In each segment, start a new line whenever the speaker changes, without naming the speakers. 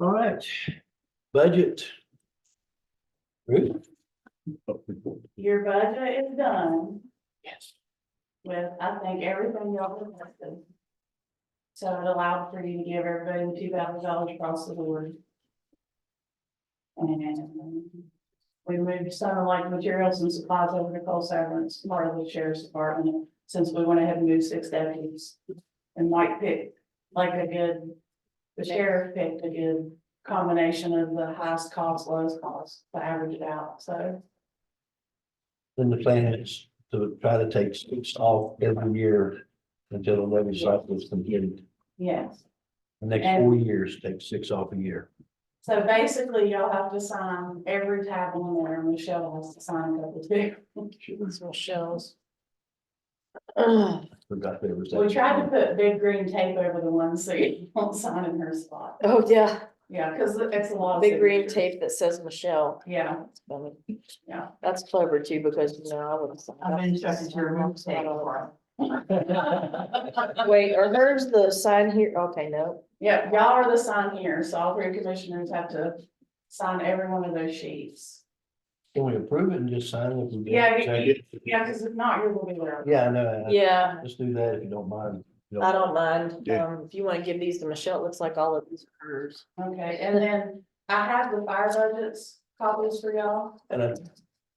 All right, budget. Ruth?
Your budget is done
Yes.
with, I think, everything y'all requested. So it allowed for you to give everybody two thousand dollars across the board. And we moved some of like materials and supplies over to Cole Severance, part of the sheriff's department, since we went ahead and moved six deputies. And Mike picked like a good, the sheriff picked a good combination of the highest cost, lowest cost to average it out, so.
Then the plan is to try to take six off every year until the levy cycle is completed.
Yes,
The next four years, take six off a year.
so basically y'all have to sign every tab on there, and Michelle has to sign a couple too. Michelle's.
Ugh,
Forgot there was. that.
We tried to put big green tape over the one so you won't sign in her spot,
Oh, yeah,
yeah, cause it's a lot. of
big green
signatures.
tape that says Michelle.
Yeah,
That's funny.
yeah.
That's clever too, because you know, I would.
I've been checking to remove tape for
Wait, are hers the sign here? Okay, no.
Yeah, y'all are the sign here, so all three commissioners have to sign every one of those sheets.
Can we approve it and just sign it? if we get
Yeah,
it?
you- Yeah, cause if not, you're gonna be there.
Yeah, I know.
Yeah,
Let's do that if you don't mind.
I don't mind.
Yeah.
Um, if you want to give these to Michelle, it looks like all of these are hers.
Okay, and then I have the fire budgets copies for y'all,
And I,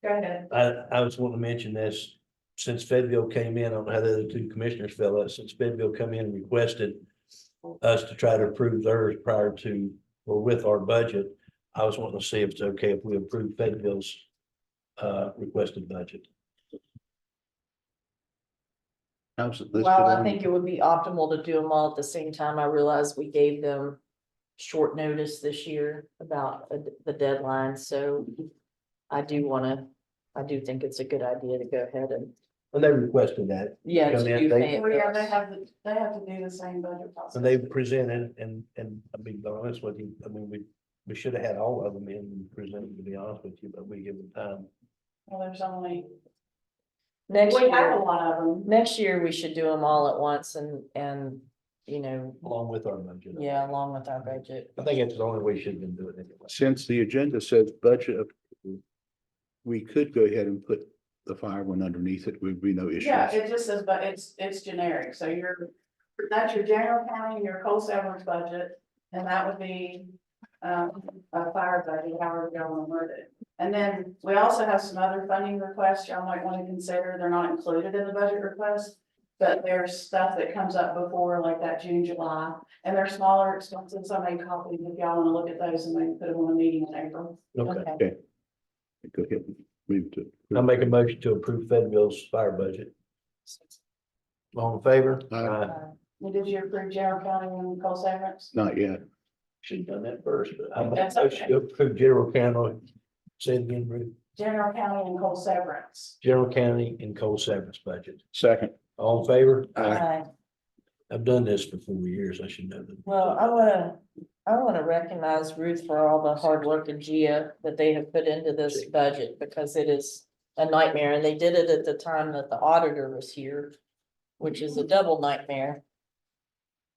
go ahead.
I, I was wanting to mention this, since Fedville came in, I don't know how the other two commissioners fell out, since Fedville come in and requested us to try to approve theirs prior to, or with our budget, I was wanting to see if it's okay if we approve Fedville's uh, requested budget.
How's it listed
Well, I
on-
think it would be optimal to do them all at the same time. I realize we gave them short notice this year about uh, the deadline, so I do want to, I do think it's a good idea to go ahead and,
And they requested that,
yeah.
Come
to
in,
do
they-
Fayetteville.
Well, yeah, they have, the- they have to do the same budget process.
and they presented, and, and I'll be honest with you, I mean, we, we should have had all of them in and presented, to be honest with you, but we give them time.
Well, there's only,
Next
we
year,
have a lot of them.
next year we should do them all at once and, and, you know,
Along with our budget.
yeah, along with our budget.
I think that's the only way you should have been doing it. anyway.
Since the agenda says budget. approval, We could go ahead and put the fire one underneath it, would be no issues.
Yeah, it just says, but it's, it's generic, so you're, that's your general county, your coal severance budget, and that would be. Um, a fire budget, however you want to word it, and then we also have some other funding requests y'all might want to consider, they're not included in the budget request. But there's stuff that comes up before, like that June, July, and they're smaller expenses, I may copy if y'all want to look at those and maybe put them on a meeting in April.
Okay.
Go ahead, and move to.
I'll make a motion to approve Fedville's fire budget. All in favor?
Aye.
And Did you approve general county and coal severance?
Not yet.
Should have done that first, but I'm,
That's
I should approve general county. Say it again, Ruth.
General county and coal severance.
General county and coal severance budget.
Second.
All in favor?
Aye.
I've done this for four years. I should know that.
Well, I wanna, I wanna recognize Ruth for all the hard work and Gia that they have put into this budget because it is a nightmare and they did it at the time that the auditor was here, which is a double nightmare.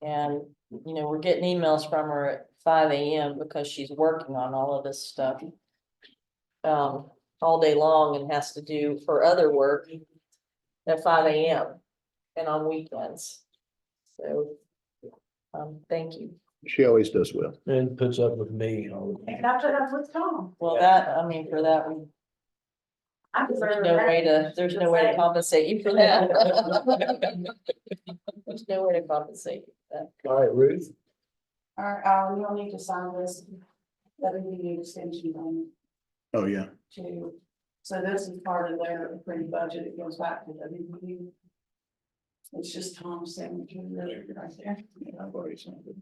And, you know, we're getting emails from her at five AM because she's working on all of this stuff um, all day long and has to do her other work at five AM and on weekends. So um, thank you.
She always does well.
And puts up with me all the
And
time.
after that with Tom.
Well, that, I mean, for that, we-
I
there's
deserve
no way
that.
to, there's no way to compensate you for that. There's no way to compensate. you for that.
All right, Ruth,
All right, um, you'll need to sign this. That'll be the extension on
Oh, yeah.
to, so this is part of their approved budget. It goes back to W B. It's just Tom's signature really right there.
Yeah, I've already signed it.